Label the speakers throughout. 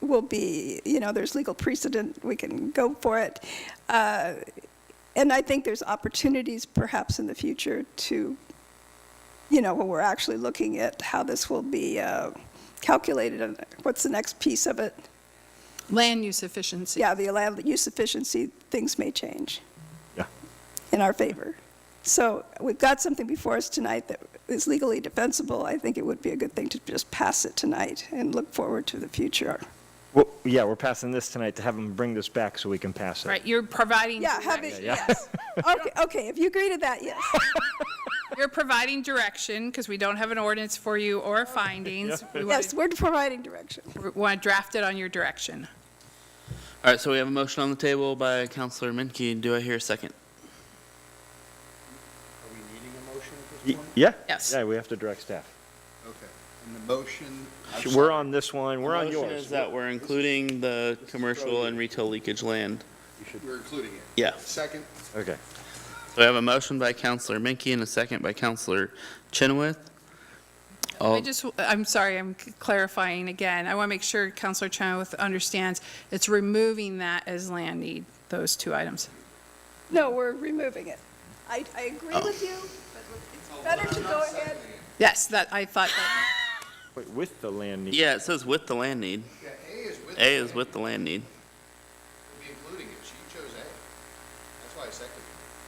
Speaker 1: will be, you know, there's legal precedent, we can go for it. Uh, And I think there's opportunities perhaps in the future to, you know, when we're actually looking at how this will be uh, calculated, and what's the next piece of it?
Speaker 2: Land use efficiency.
Speaker 1: Yeah, the land use efficiency, things may change
Speaker 3: Yeah.
Speaker 1: in our favor. So we've got something before us tonight that is legally defensible. I think it would be a good thing to just pass it tonight and look forward to the future.
Speaker 3: Well, yeah, we're passing this tonight to have them bring this back so we can pass it.
Speaker 2: Right, you're providing,
Speaker 1: Yeah, have
Speaker 2: direc-
Speaker 1: it,
Speaker 3: Yeah, yeah.
Speaker 1: yes. Okay, okay, if you agree to that, yes.
Speaker 2: you're providing direction, because we don't have an ordinance for you or findings. We
Speaker 1: Yes, we're providing direction.
Speaker 2: want to draft it on your direction.
Speaker 4: All right, so we have a motion on the table by Counselor Menke. Do I hear a second?
Speaker 5: Are we needing a motion at this
Speaker 3: Y-
Speaker 5: point?
Speaker 3: Yeah?
Speaker 2: Yes.
Speaker 3: Yeah, we have to direct staff.
Speaker 5: Okay. And the motion. I'm
Speaker 3: Sh- We're
Speaker 5: sorry,
Speaker 3: on this one, we're on
Speaker 4: The motion is
Speaker 3: yours.
Speaker 4: that we're including the commercial and retail leakage land.
Speaker 5: We're including it.
Speaker 4: Yeah.
Speaker 5: Second,
Speaker 3: Okay.
Speaker 4: So we have a motion by Counselor Menke and a second by Counselor Chenoweth.
Speaker 2: I
Speaker 4: All,
Speaker 2: just, I'm sorry, I'm clarifying again. I want to make sure Counselor Chenoweth understands, it's removing that as land need, those two items.
Speaker 1: No, we're removing it. I, I agree with you, but
Speaker 3: Oh.
Speaker 1: it's better to go ahead.
Speaker 2: Yes, that, I thought, that-
Speaker 3: Wait, with the land need.
Speaker 4: yeah, it says with the land need.
Speaker 5: yeah, A is with.
Speaker 4: A
Speaker 5: it.
Speaker 4: is with the land need.
Speaker 5: Be including it. She chose A. That's why I seconded.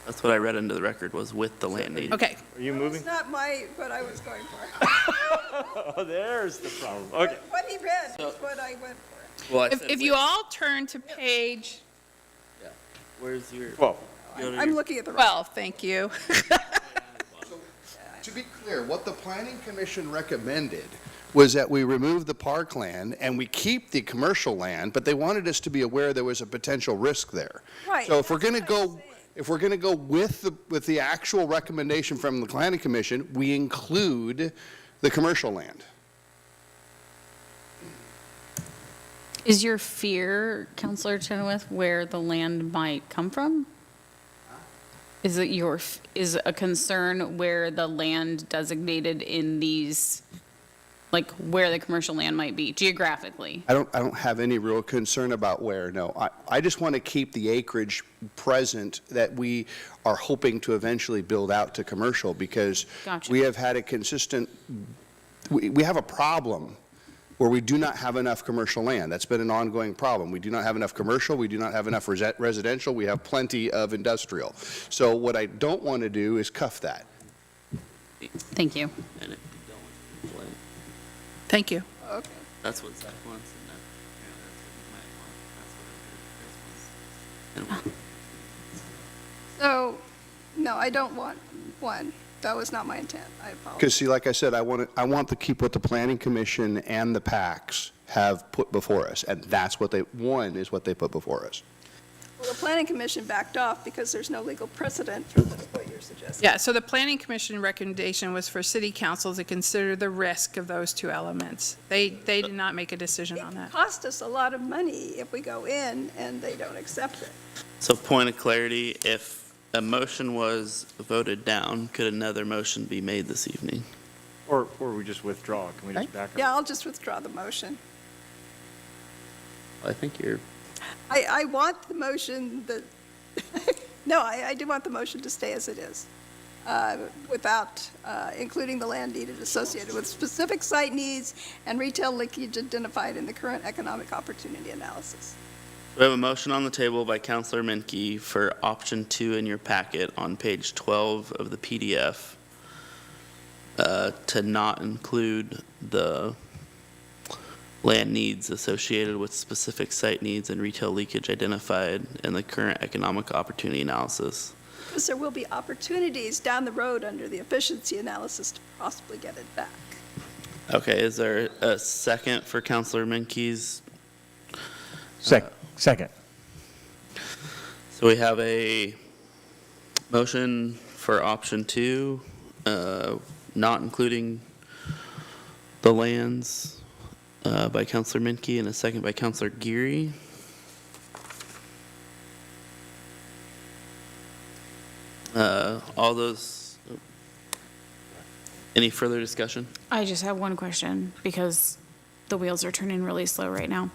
Speaker 4: That's what I read into the record was with the land need.
Speaker 2: okay,
Speaker 3: Are you
Speaker 1: It's
Speaker 3: moving?
Speaker 1: not my, what I was going for.
Speaker 3: Oh, there's the problem. Okay.
Speaker 1: What he read is what I went for.
Speaker 4: Well, I
Speaker 2: if,
Speaker 4: said
Speaker 2: if
Speaker 4: with.
Speaker 2: you all turn to page
Speaker 4: Where's your?
Speaker 3: Well,
Speaker 4: go to
Speaker 1: I'm
Speaker 4: your-
Speaker 1: looking at the,
Speaker 2: twelve, thank you.
Speaker 5: it. To be clear, what the planning commission recommended was that we remove the park land and we keep the commercial land, but they wanted us to be aware there was a potential risk there.
Speaker 1: right.
Speaker 5: So if we're
Speaker 1: that's
Speaker 5: going to
Speaker 1: what I'm
Speaker 5: go,
Speaker 1: saying.
Speaker 5: if we're going to go with the, with the actual recommendation from the planning commission, we include the commercial land.
Speaker 6: Is your fear, Counselor Chenoweth, where the land might come from? Is it your, f- is a concern where the land designated in these, like where the commercial land might be geographically?
Speaker 5: I don't, I don't have any real concern about where, no. I, I just want to keep the acreage present that we are hoping to eventually build out to commercial because
Speaker 6: Gotcha.
Speaker 5: we have had a consistent, we, we have a problem where we do not have enough commercial land. That's been an ongoing problem. We do not have enough commercial, we do not have enough resi- residential, we have plenty of industrial. So what I don't want to do is cuff that.
Speaker 6: Thank you.
Speaker 4: and it-
Speaker 2: Thank you.
Speaker 1: Okay.
Speaker 4: That's what Zach wants. and that- yeah, that's what you might want. That's what I heard. That's what-
Speaker 1: So, no, I don't want one. That was not my intent. I apologize.
Speaker 5: Because see, like I said, I want to, I want to keep what the planning commission and the PACs have put before us, and that's what they, one is what they put before us.
Speaker 1: Well, the planning commission backed off because there's no legal precedent for what you're suggesting.
Speaker 2: Yeah, so the planning commission recommendation was for city council to consider the risk of those two elements. They, they did not make a decision on
Speaker 1: It
Speaker 2: that.
Speaker 1: costs us a lot of money if we go in and they don't accept it.
Speaker 4: So point of clarity, if a motion was voted down, could another motion be made this evening?
Speaker 3: or, or we just withdraw. Can we just back up?
Speaker 1: Yeah, I'll just withdraw the motion.
Speaker 4: I think you're,
Speaker 1: I, I want the motion that, no, I, I do want the motion to stay as it is, uh, without uh, including the land needed associated with specific site needs and retail leakage identified in the current economic opportunity analysis.
Speaker 4: we have a motion on the table by Counselor Menke for option two in your packet on page 12 of the PDF uh, to not include the land needs associated with specific site needs and retail leakage identified in the current economic opportunity analysis.
Speaker 1: Because there will be opportunities down the road under the efficiency analysis to possibly get it back.
Speaker 4: Okay, is there a second for Counselor Menke's
Speaker 3: Sec, second.
Speaker 4: So we have a motion for option two, uh, not including the lands uh, by Counselor Menke and a second by Counselor Geary. Uh, All those, any further discussion?
Speaker 6: I just have one question because the wheels are turning really slow right now.